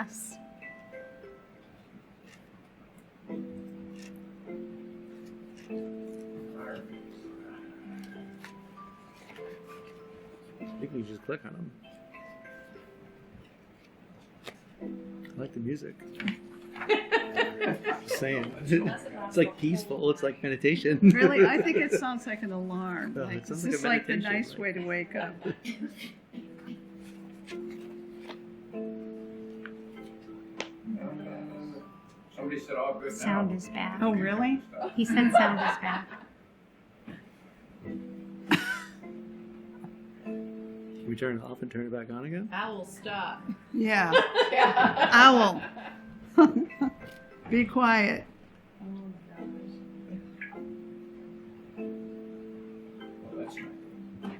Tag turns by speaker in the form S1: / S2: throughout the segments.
S1: Us.
S2: I think we just click on them. I like the music. just saying. It's like peaceful. It's like meditation.
S3: Really, I think it sounds like an alarm.
S2: Yeah, it
S3: Like, is
S2: sounds like a
S3: this like the
S2: meditation,
S3: nice
S2: like-
S3: way to wake up?
S4: Somebody said all good now.
S1: Sound is back.
S3: Oh, really?
S1: He said sound is back.
S2: We turn it off and turn it back on again?
S5: Owl, stop.
S3: Yeah.
S5: Owl.
S3: Be quiet.
S4: Well, that's nice.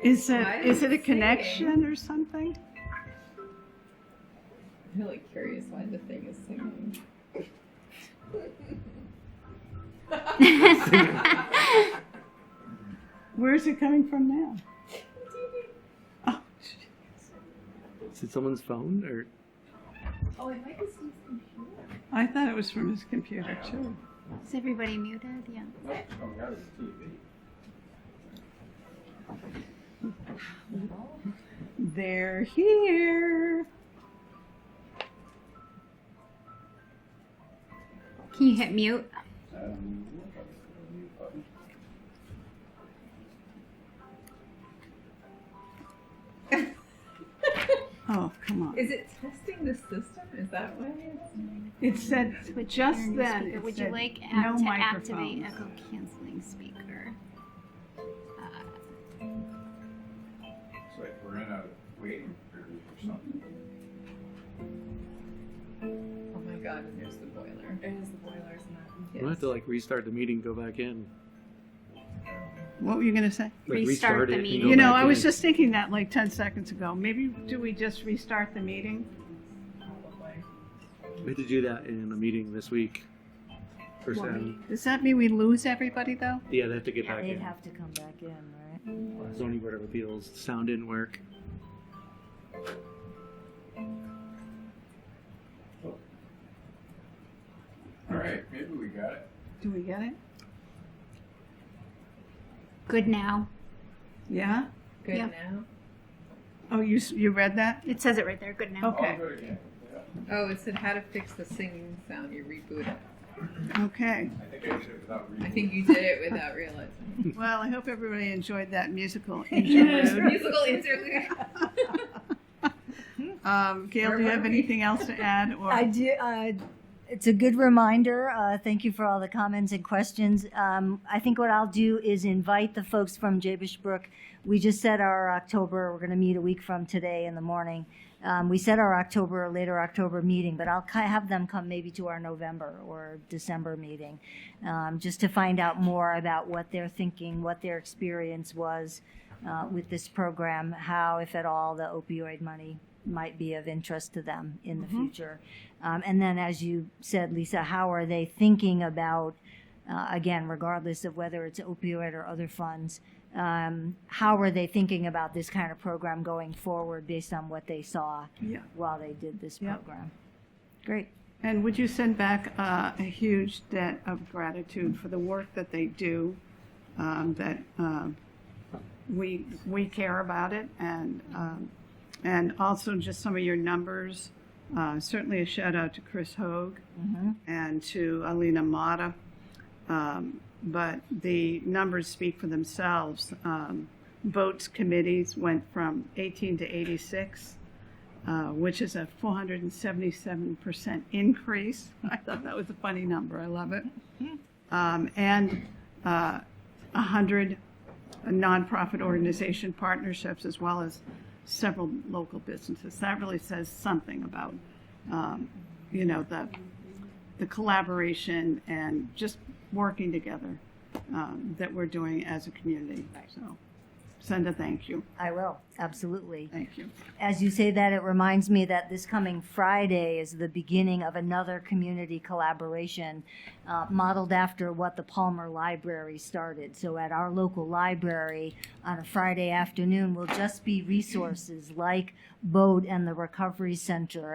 S3: Is it
S5: Why
S3: is
S5: is
S3: it a
S5: it singing?
S3: connection or something?
S5: I'm really curious why the thing is singing.
S3: Where is it coming from now? Oh,
S2: Is it someone's phone or
S5: Oh, it might be some computer.
S3: I thought it was from his computer too.
S1: Is everybody muted? Yeah.
S4: Must be coming out of the TV.
S3: They're here.
S1: Can you hit mute?
S4: Um, look up the mute button.
S3: Oh, come on.
S5: Is it testing the system? Is that why it's
S3: It said just
S1: Turn the
S3: then.
S1: speaker.
S3: it
S1: Would you
S3: said
S1: like
S3: no
S1: app to activate
S3: microphones.
S1: echo canceling speaker?
S4: It's like we're in a waiting period or something.
S5: Oh my god, and there's the boiler. There's the boiler, isn't
S2: we'll have to like restart the meeting, go back in.
S3: What were you going to say?
S2: Like
S1: Restart the
S2: it and
S1: meeting.
S2: go
S3: You know,
S2: back
S3: I was
S2: in.
S3: just thinking that like 10 seconds ago. Maybe do we just restart the meeting?
S5: Probably.
S2: We had to do that in a meeting this week. First
S1: What
S2: time.
S3: Does that mean we lose everybody though?
S2: Yeah, they have to get back
S6: They'd
S2: in.
S6: have to come back in, right?
S2: Zoning Board of Appeals. Sound didn't work.
S4: All right, maybe we got it.
S3: Do we get it?
S1: Good now.
S3: Yeah?
S5: Good
S1: Yeah.
S5: now.
S3: Oh, you s- you read that?
S1: It says it right there. Good now.
S3: Okay.
S4: All good again. Yeah,
S5: Oh, it said how to fix the singing sound. You reboot it.
S3: Okay.
S4: I think I did it without reading.
S5: I think you did it without realizing.
S3: Well, I hope everybody enjoyed that musical interlude.
S5: Musical interlude.
S3: Um, Gail,
S5: Where
S3: do you
S5: were
S3: have
S5: we?
S3: anything else to add? Or
S6: I do. Uh, it's a good reminder. Uh, thank you for all the comments and questions. Um, I think what I'll do is invite the folks from Jabesh Brook. We just set our October, we're going to meet a week from today in the morning. Um, we set our October, later October meeting, but I'll ki- have them come maybe to our November or December meeting um, just to find out more about what they're thinking, what their experience was uh, with this program, how, if at all, the opioid money might be of interest to them in the future. Um, and then, as you said, Lisa, how are they thinking about, uh, again, regardless of whether it's opioid or other funds, um, how are they thinking about this kind of program going forward based on what they saw
S3: yeah.
S6: while they did this
S3: Yep.
S6: program? Great.
S3: And would you send back uh, a huge debt of gratitude for the work that they do? Um, that um, we we care about it, and um, and also just some of your numbers. Uh, certainly a shout out to Chris Hoag and to Alina Mata. Um, but the numbers speak for themselves. Um, votes committees went from 18 to 86 uh, which is a 477% increase. I thought that was a funny number. I love it. Um, and uh, 100 nonprofit organization partnerships, as well as several local businesses. That really says something about, um, you know, the the collaboration and just working together um, that we're doing as a community. So, send a thank you.
S6: I will. Absolutely.
S3: Thank you.
S6: as you say that, it reminds me that this coming Friday is the beginning of another community collaboration uh, modeled after what the Palmer Library started. So, at our local library on a Friday afternoon will just be resources like Boat and the Recovery Center